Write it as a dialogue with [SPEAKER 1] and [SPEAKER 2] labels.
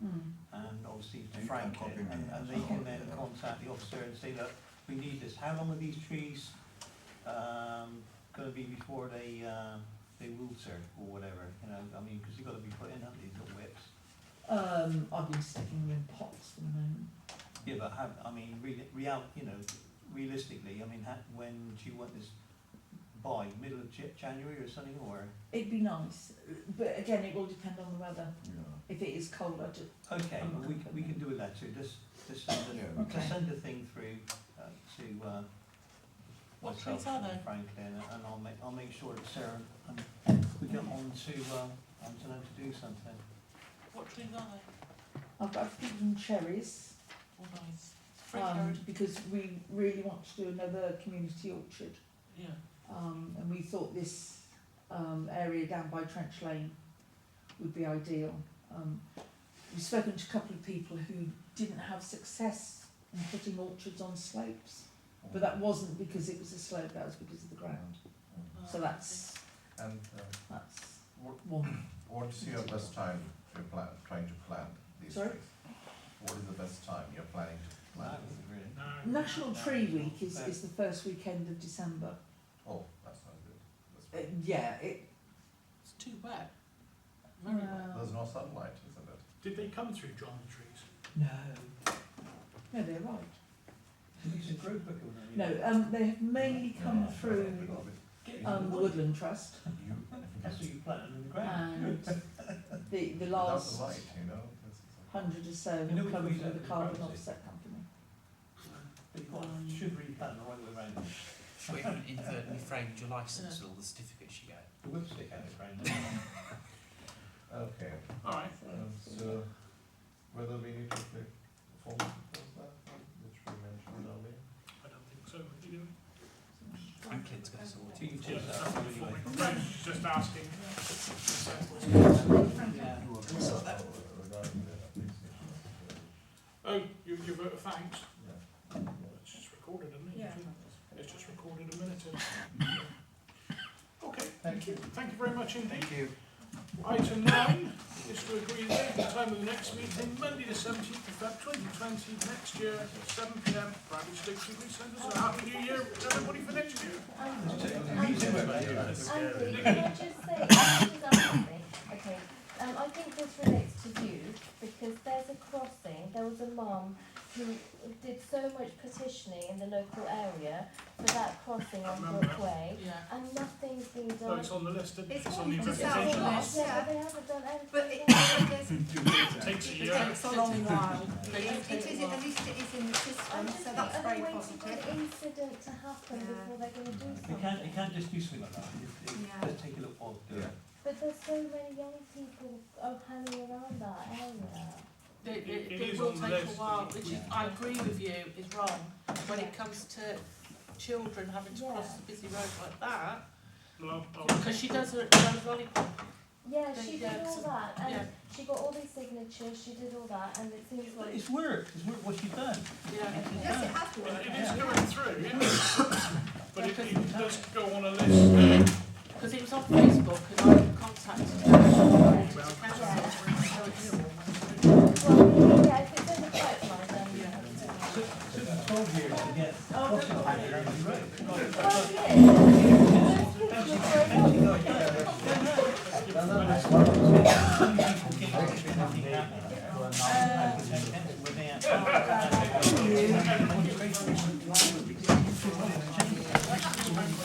[SPEAKER 1] Mm.
[SPEAKER 2] Frank
[SPEAKER 3] copy
[SPEAKER 2] did,
[SPEAKER 3] me,
[SPEAKER 2] and, and
[SPEAKER 3] yeah.
[SPEAKER 2] they can then contact the officer and say, look, we need this, how long are these trees, um, gonna be before they, um, they wilter or whatever, you know, I mean, cause you've gotta be putting up these little whips.
[SPEAKER 1] Um, I've been sticking them in pots for the moment.
[SPEAKER 2] Yeah, but how, I mean, real, real, you know, realistically, I mean, ha when do you want this by, middle of Ja- January or something, or?
[SPEAKER 1] It'd be nice, but again, it will depend on the weather.
[SPEAKER 3] Yeah.
[SPEAKER 1] If it is cold, I just,
[SPEAKER 2] Okay,
[SPEAKER 1] Um,
[SPEAKER 2] well, we, can- we can do a letter, just, just send
[SPEAKER 3] Yeah,
[SPEAKER 2] a,
[SPEAKER 3] we
[SPEAKER 1] can.
[SPEAKER 2] just send a thing through, uh, to, uh,
[SPEAKER 4] What
[SPEAKER 2] myself
[SPEAKER 4] trees are
[SPEAKER 2] and
[SPEAKER 4] they?
[SPEAKER 2] Franklin, and I'll make, I'll make sure that Sarah, um, we get on to, uh, on to them to do something.
[SPEAKER 4] What trees are they?
[SPEAKER 1] I've, I've given cherries,
[SPEAKER 4] All nice. Fruit
[SPEAKER 1] um,
[SPEAKER 4] garden.
[SPEAKER 1] because we really want to do another community orchard.
[SPEAKER 4] Yeah.
[SPEAKER 1] Um, and we thought this, um, area down by Trench Lane would be ideal. Um, we've spoken to a couple of people who didn't have success in putting orchards on slopes, but that wasn't because it was a slope, that was because of the ground. So
[SPEAKER 4] Um,
[SPEAKER 1] that's,
[SPEAKER 3] And uh,
[SPEAKER 1] that's
[SPEAKER 3] What-
[SPEAKER 1] one.
[SPEAKER 3] what is your best time you're plan, trying to plan these
[SPEAKER 1] Sorry?
[SPEAKER 3] trees? What is the best time you're planning to
[SPEAKER 2] That
[SPEAKER 3] plant?
[SPEAKER 2] was really,
[SPEAKER 1] National Tree Week is, is the first weekend of December.
[SPEAKER 3] Oh, that's not good.
[SPEAKER 1] Uh,
[SPEAKER 3] That's bad.
[SPEAKER 1] yeah, it,
[SPEAKER 4] It's too wet. Very wet.
[SPEAKER 1] uh,
[SPEAKER 3] There's no sunlight, isn't it?
[SPEAKER 5] Did they come through John the Trees?
[SPEAKER 1] No. No, they're right.
[SPEAKER 2] it's a group book, wasn't it?
[SPEAKER 1] No, um, they have mainly come
[SPEAKER 3] Yeah.
[SPEAKER 1] through
[SPEAKER 4] Get
[SPEAKER 1] um, the Woodland Trust
[SPEAKER 3] You,
[SPEAKER 2] That's what you planted in the ground.
[SPEAKER 1] and the, the
[SPEAKER 3] without
[SPEAKER 1] last
[SPEAKER 3] the light, you know? this is a-
[SPEAKER 1] hundred or so have
[SPEAKER 2] You know, we
[SPEAKER 1] come
[SPEAKER 2] use
[SPEAKER 1] through
[SPEAKER 2] that
[SPEAKER 1] the
[SPEAKER 2] for
[SPEAKER 1] Carbon
[SPEAKER 2] browsing.
[SPEAKER 1] Offset Company. uh,
[SPEAKER 2] But you
[SPEAKER 1] um,
[SPEAKER 2] want- should replant the right way around,
[SPEAKER 6] She even inadvertently framed your licence with all the certificates she gave.
[SPEAKER 2] the whipstick out of the ground.
[SPEAKER 3] Okay,
[SPEAKER 5] All right.
[SPEAKER 3] um, so whether we need to pick the form of that, which we mentioned earlier?
[SPEAKER 5] I don't think so. Are you doing?
[SPEAKER 6] Franklin's got us all.
[SPEAKER 2] So you
[SPEAKER 5] Yeah,
[SPEAKER 2] take that
[SPEAKER 5] that's
[SPEAKER 2] out
[SPEAKER 5] not
[SPEAKER 2] anyway.
[SPEAKER 5] forming. Right, just asking. Oh,
[SPEAKER 2] Yeah.
[SPEAKER 3] So that. Regarding the appreciation of,
[SPEAKER 5] Oh, you, you wrote a thanks.
[SPEAKER 3] uh, yeah.
[SPEAKER 5] It's just recorded, isn't it?
[SPEAKER 4] Yeah.
[SPEAKER 5] It's just recorded a minute in. Okay, thank you. Thank you very much indeed.
[SPEAKER 2] you.
[SPEAKER 5] Item nine is to agree the date and time of the next meeting, Monday the seventeenth of Feb twenty twenty, next year, seven P M. Bradley Station, please send us a happy new year to everybody for next year.
[SPEAKER 2] You too, mate.
[SPEAKER 7] Andy, can I just say, can I just ask something? Okay, um, I think this relates to you, because there's a crossing, there was a mum who did so much petitioning in the local area for that crossing on
[SPEAKER 5] Remember.
[SPEAKER 7] Brookway,
[SPEAKER 4] Yeah.
[SPEAKER 7] and nothing's been
[SPEAKER 5] No,
[SPEAKER 7] done.
[SPEAKER 5] it's on the list, isn't it?
[SPEAKER 8] It's
[SPEAKER 5] on the
[SPEAKER 8] on the
[SPEAKER 5] representation
[SPEAKER 8] south
[SPEAKER 5] list.
[SPEAKER 8] list.
[SPEAKER 7] Yeah, but they haven't done anything.
[SPEAKER 8] But it,
[SPEAKER 5] It Takes a
[SPEAKER 8] it
[SPEAKER 5] year.
[SPEAKER 8] takes a long while.
[SPEAKER 4] But
[SPEAKER 8] It it is, at least it is in the
[SPEAKER 7] I'm
[SPEAKER 8] system, so
[SPEAKER 7] just think,
[SPEAKER 8] that's very
[SPEAKER 7] are they waiting for
[SPEAKER 8] positive.
[SPEAKER 7] an incident to happen
[SPEAKER 8] Yeah.
[SPEAKER 7] before they're gonna do
[SPEAKER 2] You can't, you
[SPEAKER 7] something?
[SPEAKER 2] can't just do something like that, it, it
[SPEAKER 8] Yeah.
[SPEAKER 2] does take a little while to do it.
[SPEAKER 7] But there's so many young people uh, hanging around that area.
[SPEAKER 4] It, it,
[SPEAKER 5] It
[SPEAKER 4] it
[SPEAKER 5] is
[SPEAKER 4] will
[SPEAKER 5] on the
[SPEAKER 4] take a
[SPEAKER 5] list,
[SPEAKER 4] while,
[SPEAKER 5] isn't
[SPEAKER 4] which is,
[SPEAKER 2] Yeah.
[SPEAKER 4] I agree with you, is wrong. When it comes to children having to cross
[SPEAKER 7] Yeah.
[SPEAKER 4] a busy road like that,
[SPEAKER 5] Well, I'll-
[SPEAKER 4] because she does her, her lollipop.
[SPEAKER 7] Yeah,
[SPEAKER 4] They-
[SPEAKER 7] she
[SPEAKER 4] yeah,
[SPEAKER 7] did all
[SPEAKER 4] so-
[SPEAKER 7] that,
[SPEAKER 4] yeah.
[SPEAKER 7] and she got all these signatures, she did all that, and it seems
[SPEAKER 2] But
[SPEAKER 7] like
[SPEAKER 2] it's work, it's work what you've done.
[SPEAKER 4] Yeah.
[SPEAKER 8] Yes, it has
[SPEAKER 5] Well,
[SPEAKER 8] worked.
[SPEAKER 5] It is going through, yeah. But it, it does go on a list.
[SPEAKER 4] Because it was on Facebook and I contacted her. It was a council, so it's-
[SPEAKER 7] Well, yeah, if it's in the pipeline, then yeah.
[SPEAKER 8] Oh,
[SPEAKER 2] Took, took twelve years to get crossing on the road.
[SPEAKER 7] Well, yeah,